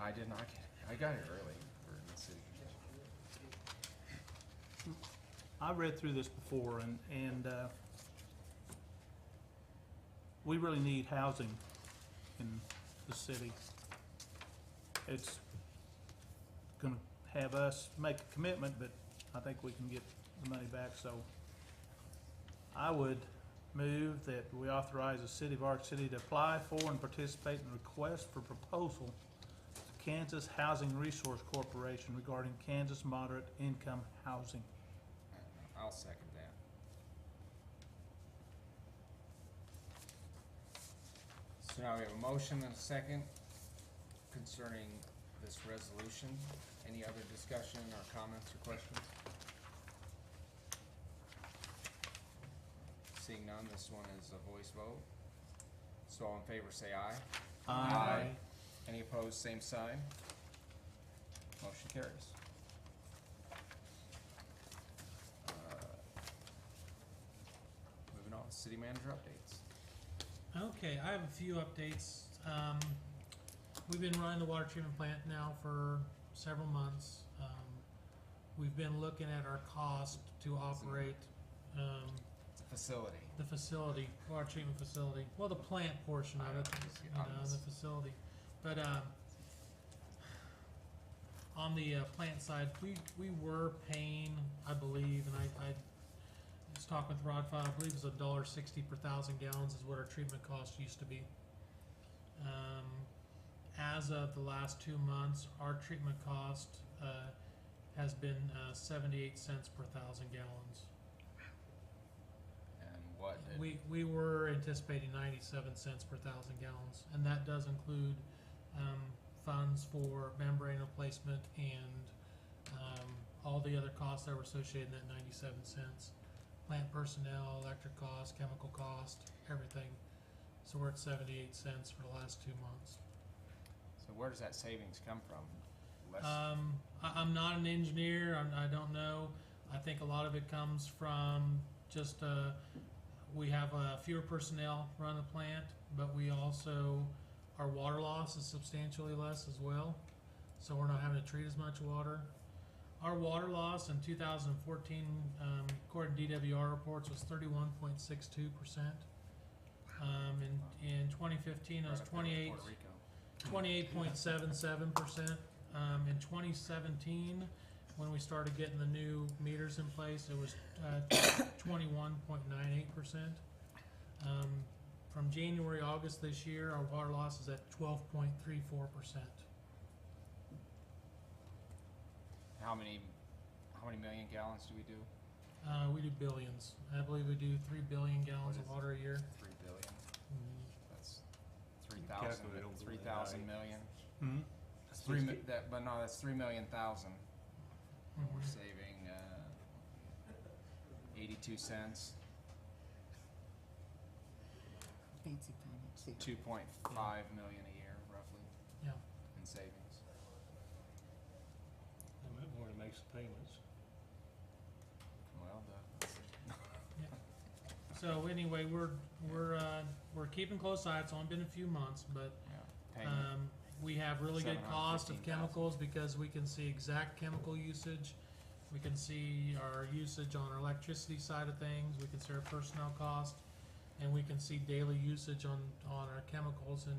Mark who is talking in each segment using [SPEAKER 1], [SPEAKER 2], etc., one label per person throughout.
[SPEAKER 1] I did not get, I got here early for the city commission.
[SPEAKER 2] I read through this before and, and, uh, we really need housing in the city. It's gonna have us make a commitment, but I think we can get the money back, so I would move that we authorize the city of Arc City to apply for and participate in request for proposal to Kansas Housing Resource Corporation regarding Kansas moderate income housing.
[SPEAKER 1] I'll second that. So now we have a motion and a second concerning this resolution. Any other discussion or comments or questions? Seeing none, this one is a voice vote. So all in favor, say aye. Aye. Any opposed, same sign. Motion carries. Uh, Moving on, city manager updates.
[SPEAKER 3] Okay, I have a few updates. Um, we've been running the water treatment plant now for several months. Um, we've been looking at our cost to operate, um,
[SPEAKER 1] Facility.
[SPEAKER 3] the facility, water treatment facility, well, the plant portion of it, you know, the facility. But, um, on the, uh, plant side, we, we were paying, I believe, and I, I was talking with Rod Fowler, I believe it was a dollar sixty per thousand gallons is what our treatment cost used to be. Um, as of the last two months, our treatment cost, uh, has been, uh, seventy-eight cents per thousand gallons.
[SPEAKER 1] And what did,
[SPEAKER 3] We, we were anticipating ninety-seven cents per thousand gallons, and that does include, um, funds for membrane replacement and, um, all the other costs that were associated in that ninety-seven cents. Plant personnel, electric cost, chemical cost, everything. So we're at seventy-eight cents for the last two months.
[SPEAKER 1] so where does that savings come from? Less,
[SPEAKER 3] Um, I, I'm not an engineer. I'm, I don't know. I think a lot of it comes from just uh, we have uh, fewer personnel run the plant, but we also our water loss is substantially less as well. So we're not having to treat as much water. Our water loss in 2014, um, according to DWR reports, was 31.62 percent. Um, in, in 2015, it
[SPEAKER 1] right up
[SPEAKER 3] was
[SPEAKER 1] there with
[SPEAKER 3] 28.
[SPEAKER 1] Puerto Rico.
[SPEAKER 3] Twenty-eight point seven seven percent. Um, in twenty seventeen, when we started getting the new meters in place, it was, uh, twenty-one point nine eight percent. Um, from January, August this year, our water loss is at twelve point three four percent.
[SPEAKER 1] How many, how many million gallons do we do?
[SPEAKER 3] Uh, we do billions. I believe we do three billion gallons
[SPEAKER 1] What
[SPEAKER 3] of
[SPEAKER 1] is-
[SPEAKER 3] water a year.
[SPEAKER 1] Three billion?
[SPEAKER 3] Mm,
[SPEAKER 1] That's three thousand,
[SPEAKER 4] calculate over
[SPEAKER 1] three
[SPEAKER 4] the
[SPEAKER 1] thousand
[SPEAKER 4] night.
[SPEAKER 1] million.
[SPEAKER 2] Hmm?
[SPEAKER 1] That's three, mi-
[SPEAKER 4] Sixty.
[SPEAKER 1] that, but no, that's three million thousand. And We're
[SPEAKER 3] mhm.
[SPEAKER 1] saving uh, eighty-two cents,
[SPEAKER 5] Fancy finance here.
[SPEAKER 1] two point five million a year roughly.
[SPEAKER 3] Yeah.
[SPEAKER 1] In savings.
[SPEAKER 4] They might wanna make some payments.
[SPEAKER 1] Well, the,
[SPEAKER 3] So anyway, we're, we're, uh, we're keeping close eye. It's only been a few months, but
[SPEAKER 1] yeah, paying
[SPEAKER 3] Um, we have really good cost of
[SPEAKER 1] 715,000.
[SPEAKER 3] chemicals because we can see exact chemical usage. We can see our usage on our electricity side of things, we can see our personnel cost, and we can see daily usage on, on our chemicals and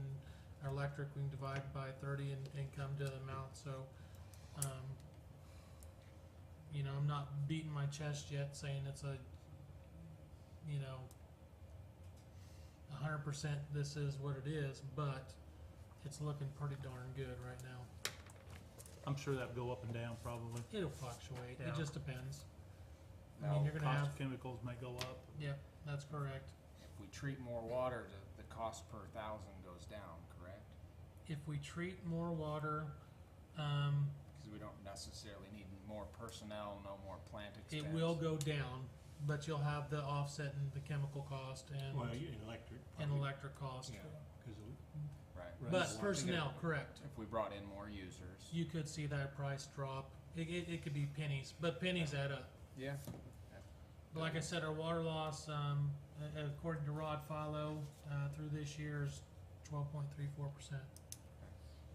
[SPEAKER 3] our electric, we can divide by thirty and, and come to the amount, so, um, you know, I'm not beating my chest yet saying it's a, you know, a hundred percent this is what it is, but it's looking pretty darn good right now.
[SPEAKER 2] I'm sure that'd go up and down probably.
[SPEAKER 3] It'll fluctuate.
[SPEAKER 2] Yeah.
[SPEAKER 3] It just depends. I
[SPEAKER 1] Now,
[SPEAKER 3] mean, you're gonna
[SPEAKER 2] Cost
[SPEAKER 3] have.
[SPEAKER 2] of chemicals may go up.
[SPEAKER 3] Yep, that's correct.
[SPEAKER 1] if we treat more water, the, the cost per thousand goes down, correct?
[SPEAKER 3] If we treat more water, um,
[SPEAKER 1] Because we don't necessarily need more personnel, no more plant expense.
[SPEAKER 3] it will go down, but you'll have the offset in the chemical cost
[SPEAKER 4] Well,
[SPEAKER 3] and
[SPEAKER 4] you- electric.
[SPEAKER 3] and
[SPEAKER 4] probably,
[SPEAKER 3] electric cost.
[SPEAKER 1] Yeah,
[SPEAKER 4] 'cause of-
[SPEAKER 1] right.
[SPEAKER 4] Right.
[SPEAKER 3] But
[SPEAKER 4] Right.
[SPEAKER 3] personnel, correct.
[SPEAKER 1] If we brought in more users.
[SPEAKER 3] You could see that price drop. It, it, it could be pennies, but pennies add up.
[SPEAKER 1] Yeah.
[SPEAKER 3] But like I said, our water loss, um, a- according to Rod Follow, uh, through this year is twelve point three four percent.